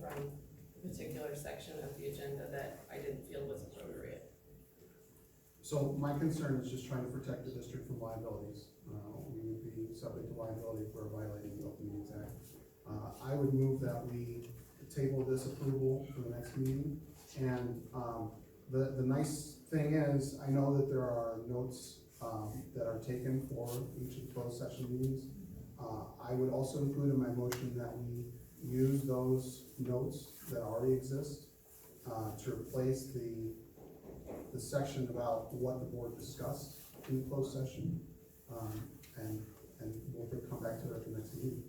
from a particular section of the agenda that I didn't feel was appropriate. So my concern is just trying to protect the district from liabilities. Uh, we would be subject to liability for violating the Open Meetings Act. Uh, I would move that we table this approval for the next meeting. And, um, the, the nice thing is, I know that there are notes, um, that are taken for each of the closed session meetings. Uh, I would also include in my motion that we use those notes that already exist, uh, to replace the, the section about what the board discussed in the closed session. Um, and, and we'll come back to it at the next meeting.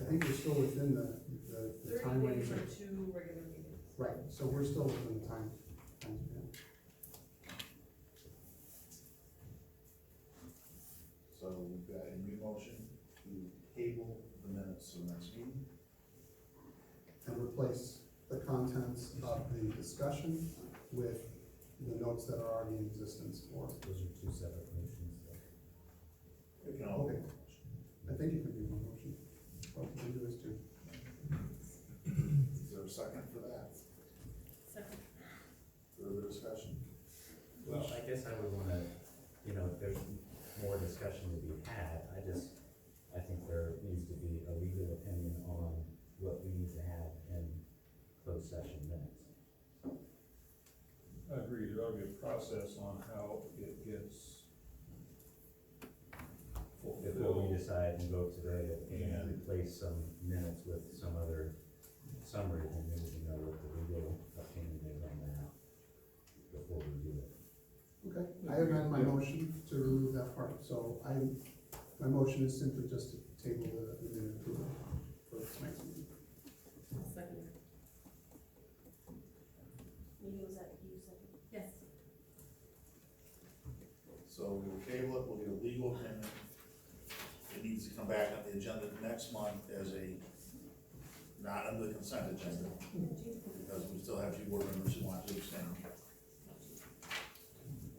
I think we're still within the, the- the Thirty time range. days or two regular meetings. Right, so we're still within the time. time span. So we've got a new motion to table the minutes to the next meeting. And replace the contents of the discussion with the notes that are already in existence for. Those are two separate motions. though. We can all make a motion. I think it could be one motion. What we can do is to, Is there a second for that? Second. Further discussion? Well, I guess I would wanna, you know, if there's more discussion to be had, I just, I think there needs to be a legal opinion on what we need to have in closed session minutes. I agree, there ought to be a process on how it gets Before we fulfilled. decide and vote today, Yeah. and replace some minutes with some other summary, and then we can know what the legal opinion is on that before we do it. okay, I amend my motion to remove that part, so I, my motion is simply just to table the, the minute approval for the next meeting. Second. Maybe it was that you said. Yes. So we'll table it, we'll get a legal opinion. It needs to come back on the agenda next month as a, not under the consent agenda, because we still have two board members who want to abstain.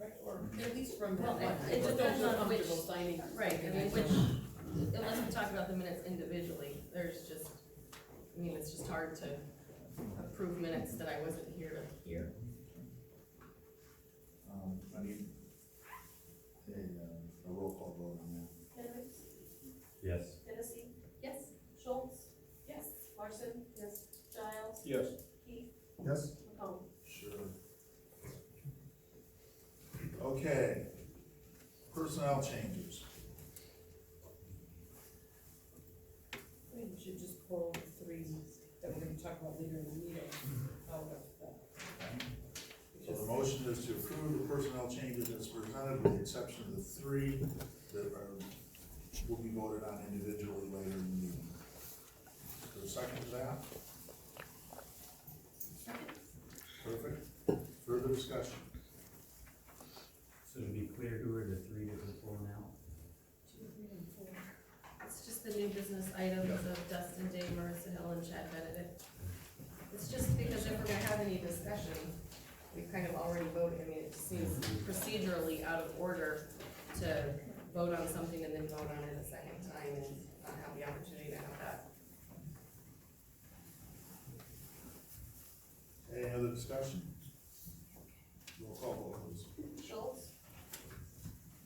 Right, or At least from that Well, one. it- it Don't feel depends on comfortable which- signing. Right, I mean, which, unless we talk about the minutes individually, there's just, I mean, it's just hard to approve minutes that I wasn't here to hear. Um, I need a, uh, a roll call vote on that. Henricks, Yes. Hennessy, Yes. Schultz, Yes. Larson. Yes. Giles, Yes, Keith, Yes? McComb. Sure. Okay, personnel changes. We should just pull the three that we're gonna talk about later in the meeting out of the. So the motion is to approve the personnel changes as presented, with the exception of the three that are, will be voted on individually later in the meeting. Is there a second to that? Perfect. Further discussion? So to be clear, who are the three that we're pulling out? It's just the new business items of Dustin Day, Marissa Hill, and Chad Benedict. It's just because if we're gonna have any discussion, we've kind of already voted, I mean, it just seems procedurally out of order to vote on something and then vote on it a second time and not have the opportunity to have that Any other discussion? Roll call vote, please. Schultz,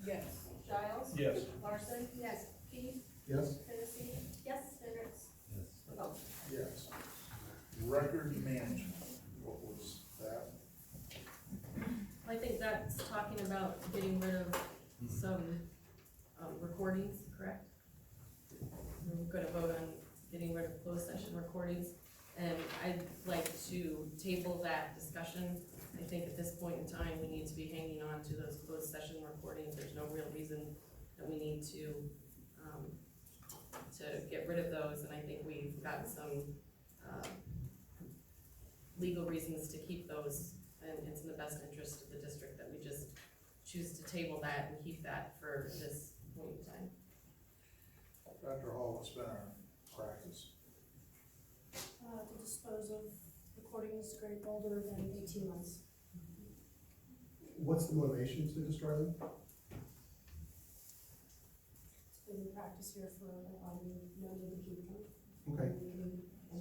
Yes. Giles, yes. Larson. Yes. Keith, Yes? Hennessy. Yes. Hendricks, Yes. McComb. Yes. Record management, what was that? I think that's talking about getting rid of some um, recordings, correct? We're gonna vote on getting rid of closed session recordings, and I'd like to table that discussion. I think at this point in time, we need to be hanging on to those closed session recordings, there's no real reason that we need to, um, to get rid of those, and I think we've got some, uh, legal reasons to keep those and it's in the best interest of the district that we just choose to table that and keep that for this point in time. Dr. Hall, what's been our practice? uh, to dispose of recordings great older than eighteen months. What's the motivation to destroy them? It's been in practice here for a while, we know that we keep them. Okay,